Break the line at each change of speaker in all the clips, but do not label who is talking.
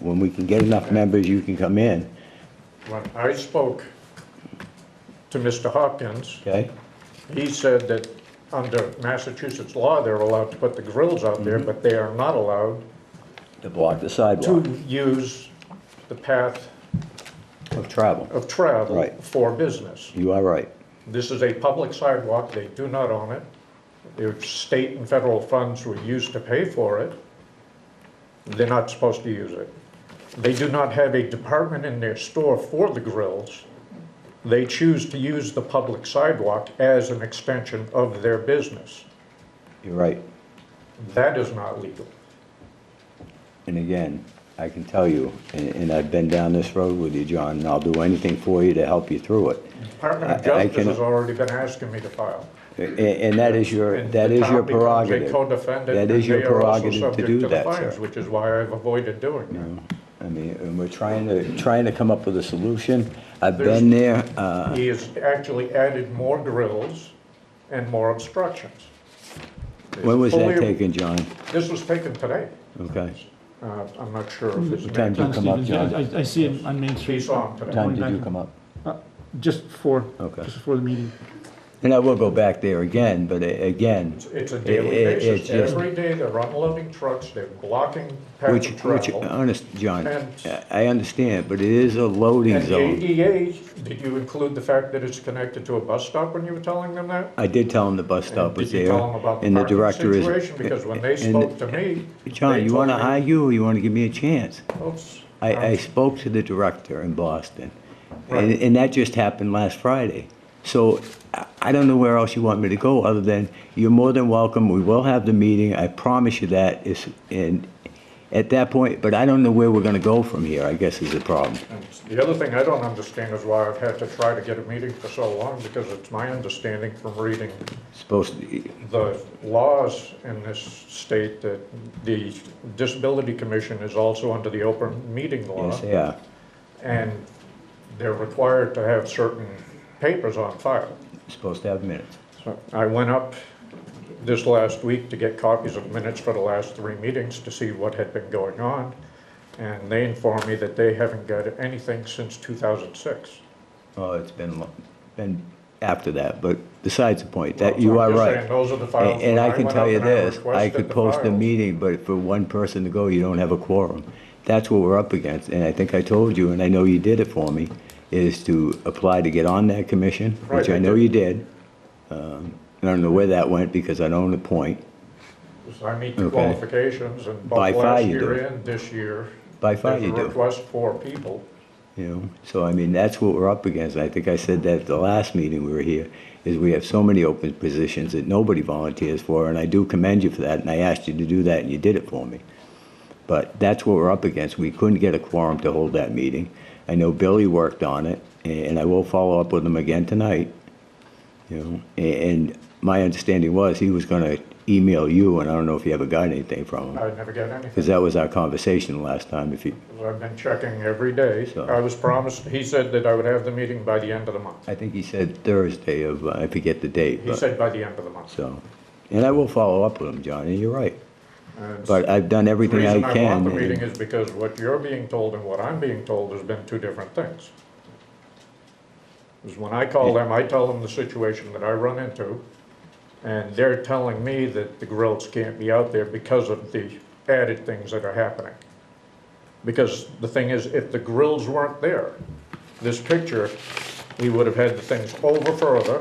we can get enough members, you can come in,
When I spoke to Mr. Hopkins,
okay?
he said that under Massachusetts law, they're allowed to put the grills out there, but they are not allowed
To block the
to
sidewalk
use the path
of travel.
of travel
Right.
for business.
You are right.
This is a public sidewalk, they do not own it. If state and federal funds were used to pay for it, they're not supposed to use it. They do not have a department in their store for the grills. They choose to use the public sidewalk as an extension of their business.
You're right.
That is not legal.
And again, I can tell you, and, and I've been down this road with you, John, and I'll do anything for you to help you through it.
Department of
I- I
Justice
can-
has already been asking me to file.
A- And, that is your,
And
that
the
is
town
your
becomes a
prerogative.
co-defendant,
That
and
is your
they are also
prerogative to
subject
do
the
that,
fines,
sir.
Which is why I've avoided doing that.
I mean, and we're trying to, trying to come up with a solution. I've
There's-
been there, uh,
He has actually added more grills and more obstructions.
when was that
Fully-
taken, John?
This was taken today.
Okay.
Uh, I'm not sure if this
What time
man,
did you come up,
Stevens,
John?
yeah, I, I see him on Main Street.
he saw him today.
Time did you come up?
Uh, Just before,
Okay.
just before the meeting.
And I will go back there again, but a- again,
It's a
It-
daily
it-
basis.
it's just-
Every day they're unloading trucks, they're blocking path
which,
of
which, uh,
travel.
honest, John,
And-
I- I understand, but it is a loading
And E. the
zone.
ADA, did you include the fact that it's connected to a bus stop when you were telling them that?
I did tell him the bus stop was
Did
there,
you tell them about the
and the
parking
director is.
situation? Because when they
and-
spoke to me.
John,
they
you
told
wanna
me-
argue, or you wanna give me a chance?
Oops.
I, I spoke to the director in Boston, and,
Right.
and that just happened last Friday. So I- I don't know where else you want me to go, other than you're more than welcome, we will have the meeting, I promise you that, is, and at that point, but I don't know where we're gonna go from here, I guess is the problem.
And The other thing I don't understand is why I've had to try to get a meeting for so long, because it's my understanding from reading
Supposed to,
the laws in this state that the Disability Commission is also under the open meeting law,
yes, yeah,
and they're required to have certain papers on file.
supposed to have minutes.
So I went up this last week to get copies of minutes for the last three meetings to see what had been going on, and they informed me that they haven't got anything since 2006.
Oh, it's been, lo- been after that, but besides the point, that, you
Well,
are
I'm just
right.
saying, those are the files
And and
that
I can
went
tell
up
you
and
this, I
requested
could
the
post a
files.
meeting, but for one person to go, you don't have a quorum. That's what we're up against, and I think I told you, and I know you did it for me, is to apply to get on that commission, which
Right,
I
I
know
did.
you did. Um, I don't know where that went because I don't appoint.
So I meet the
Okay.
qualifications and
By
both
far
last
you do.
year and this year.
By far
there's a
you do.
Request for people.
You know, so I mean, that's what we're up against. I think I said that at the last meeting we were here, is we have so many open positions that nobody volunteers for, and I do commend you for that, and I asked you to do that, and you did it for me. But that's what we're up against. We couldn't get a quorum to hold that meeting. I know Billy worked on it, and I will follow up with him again tonight. You know, a- and my understanding was he was gonna email you, and I don't know if you ever got anything from him,
I never get anything.
because that was our conversation last time, if you,
I've been checking every day.
So-
I was promised, he said that I would have the meeting by the end of the month.
I think he said Thursday of, uh, I forget the date,
He
but.
said by the end of the month.
So, and I will follow up with him, John, and you're right.
And
But I've done
The
everything I
reason I want
can.
the meeting
and-
is because what you're being told and what I'm being told has been two different things. Because when I call them, I tell them the situation that I run into, and they're telling me that the grills can't be out there because of the added things that are happening. Because the thing is, if the grills weren't there, this picture, we would have had the things over further,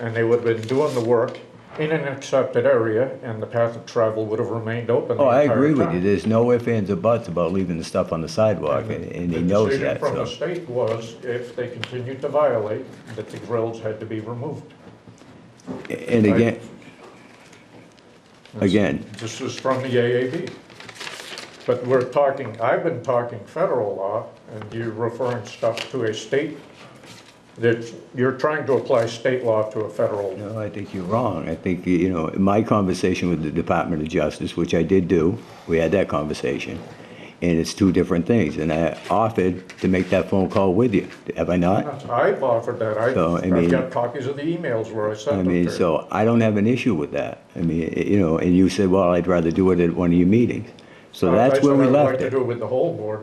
and they would have been doing the work in an accepted area, and the path of travel would have remained open the
Oh, I
entire time.
agree with you. There's no ifs, ands, or buts about leaving the stuff on the sidewalk, and and he knows that,
The decision from the
so.
state was, if they continued to violate, that the grills had to be removed.
And again, again,
This was from the AAB. But we're talking, I've been talking federal law, and you're referring stuff to a state, that you're trying to apply state law to a federal.
no, I think you're wrong. I think, you know, in my conversation with the Department of Justice, which I did do, we had that conversation, and it's two different things. And I offered to make that phone call with you. Have I not?
I've offered that, I,
So, I mean-
I've got copies of the emails where I sent
I
them to
mean,
you.
so I don't have an issue with that. I mean, i- you know, and you said, well, I'd rather do it at one of your meetings. So
I-
that's where we
I said I would
left
like to
it.
do it with the whole board,